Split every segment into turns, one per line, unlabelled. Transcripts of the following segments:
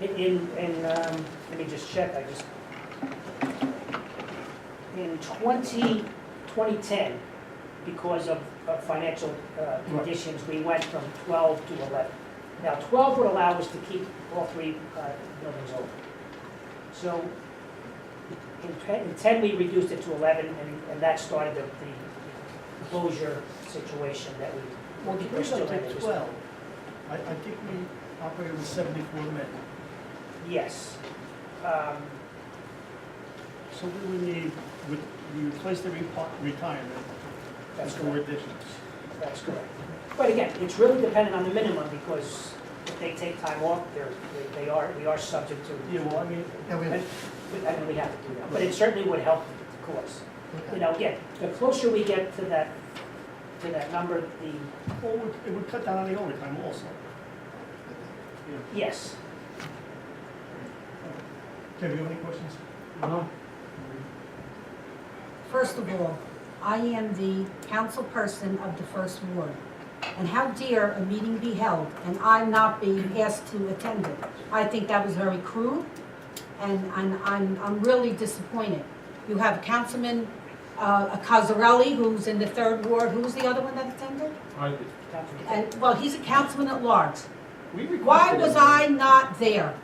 In, in, um, let me just check, I just. In twenty, twenty-ten, because of, of financial, uh, conditions, we went from twelve to eleven. Now, twelve would allow us to keep all three, uh, buildings open. So, in ten, in ten, we reduced it to eleven, and, and that started the, the closure situation that we.
Well, the
we're
reason I
still in
took
this-
twelve, I, I think we operated with seventy-four men,
Yes. Um,
so we would need, with, we replaced the repo- retirement with
That's
four
correct,
additions.
that's correct. But again, it's really dependent on the minimum, because if they take time off, they're, they- they are, we are subject to,
Yeah, well, I mean,
Yeah, we
and
have,
we- and we have to do that, but it certainly would help the cause. You know, again, the closer we get to that, to that number, the,
well, it would- it would cut down on the overtime also.
yes,
Tim, you have any questions?
No,
First of all, I am the council person of the first ward. And how dare a meeting be held and I'm not being asked to attend it? I think that was very crude and I'm, I'm, I'm really disappointed. You have Councilman, uh, Cazarelli, who's in the third ward, who's the other one that attended?
I did.
And, well, he's a councilman at large.
We requested.
Why was
it.
I not there?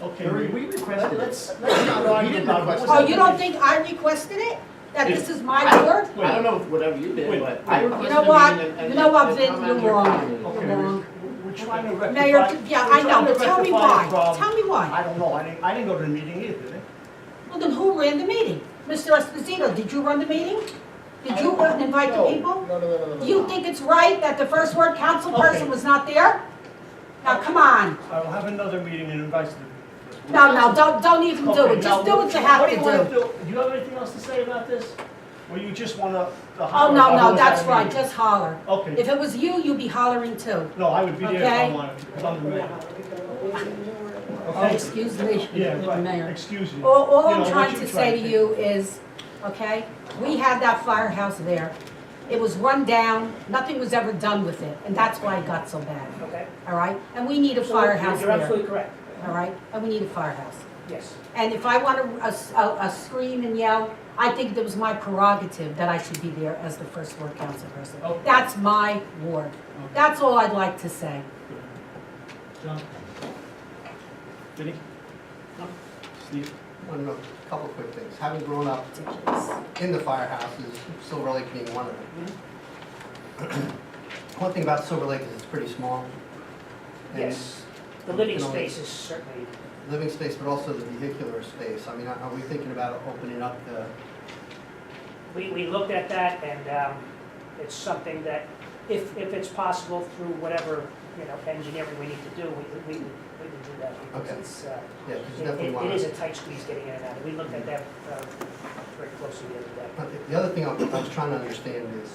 Okay,
Barry,
we,
we
let-
requested. it.
let's, let's not argue
didn't
about
request
what's.
Oh, you don't think I requested it? That this is my ward?
Wait.
I don't know
Oh,
if whatever you
Wait,
did, but I
wait.
You
requested
know
a
what?
meeting and- and.
You know what,
and
Vin,
come
you're
on your
wrong.
comments.
Okay,
You're wrong.
we- we're trying to rectify.
Mayor,
we're
yeah, I
trying
know,
to
but tell me
rectify
why,
the problem.
tell me
I
why.
don't know, I didn't, I didn't go to the meeting either, did I?
Well, then who ran the meeting? Mr. Esposito, did you run the meeting? Did you uh, invite the
No,
people?
No, no, no, no, no.
Do you think it's right that the first word council person
Okay.
was not there? Now, come on.
I will have another meeting and invite you.
No, no, don't, don't even do
Okay,
it, just
now,
do what you have
do
to
you wanna
do.
Do Do you have anything else to say about this? Or you just wanna?
Oh, no, no, that's right, just holler.
Okay,
If it was you, you'd be hollering too.
no, I would be there if I
Okay.
wanted to, because I'm the mayor.
Oh,
Okay?
excuse me,
Yeah,
Mr.
right,
Mayor. Oh.
excuse you.
All, all
You know,
I'm
what
trying
you
to
trying
say
to
to
do.
you is, okay, we had that firehouse there. It was run down, nothing was ever done with it, and that's why it got so bad,
okay.
all right? And we need a
So
firehouse
You're
there,
absolutely correct,
all right? And we need a firehouse.
yes.
And if I want to, a, a scream and yell, I think it was my prerogative that I should be there as the first ward council person.
Okay.
That's my ward. That's all I'd like to say.
John? Vinnie? Steve?
I don't know, a couple of quick things. Having grown up in the firehouses, Silver Lake being one of them.
Mm-hmm.
One thing about Silver Lake is it's pretty small. and
Yes, the living
You know,
space is certainly,
Living space, but also the vehicular space. I mean, are are we thinking about opening up the,
we, we looked at that, and um, it's something that, if, if it's possible through whatever, you know, engineering we need to do, we, we, we would do that. because
Okay.
it's, uh,
yeah, because
It
you definitely
it- it
want
is
to.
a tight squeeze getting in and out. We looked at that uh, very closely the other day.
But the- the other thing I was I was trying to understand is,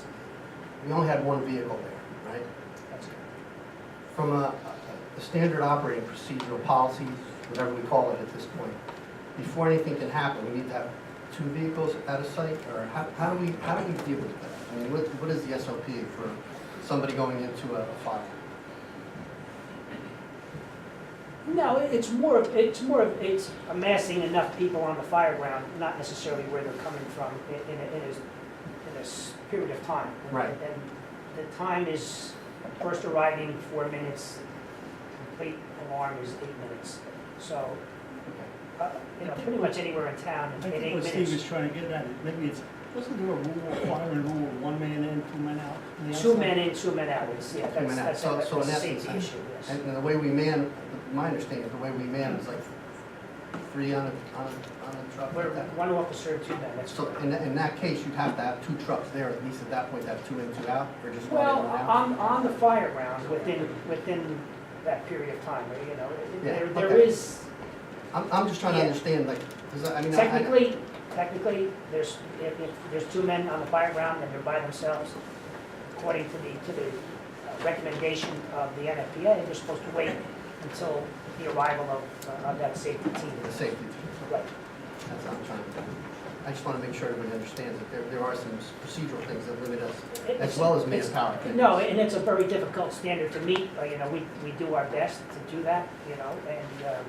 we only had one vehicle there, right?
That's-
From a, a standard operating procedure, policy, whatever we call it at this point, before anything can happen, we need to have two vehicles at a site, or how, how do we, how do we deal with that? I mean, what, what is the SOP for somebody going into a fire?
No, it- it's more, of- it's more, of it's amassing enough people on the fire ground, not necessarily where they're coming from in in a, in a, in a s- period of time.
Right.
And the time is first arriving, four minutes, complete alarm is eight minutes. So, uh, you know, pretty much anywhere in town in
I
in
think
eight
what Steve is
minutes.
trying to get at, is maybe it's, wasn't there a rule of fire and rule of one man in, two men out? on the
Two
outside?
men in, two men out, it's, yeah, that's,
men out.
that's
So-
that's
so in
a
essence,
safety
I-
issue, yes.
And the way we man, my understanding, is the way we man is like three on a, on a, on a truck.
We're
like that.
one officer, two men, that's
So
correct.
in, that- in that case, you'd have to have two trucks there, at least at that point, have two in, two out, or just one in,
Well, uh,
one out?
on, on the fire ground, within, within that period of time, you know,
Yeah,
there, there
okay.
is,
I'm, I'm just trying to
Yeah.
understand, like, because I I mean, I- I,
technically, technically, there's, if, if there's two men on the fire ground and they're by themselves, according to the, to the uh, recommendation of the NFPA, they're supposed to wait until the arrival of, uh, of that safety team.
the safety,
Right,
that's what I'm trying to, I just want to make sure everybody understands that there, there are some procedural things that limit us, as
It's-
well as
it's-
manpower.
No, and it's a very difficult standard to meet, but, you know, we, we do our best to do that, you know, and, uh,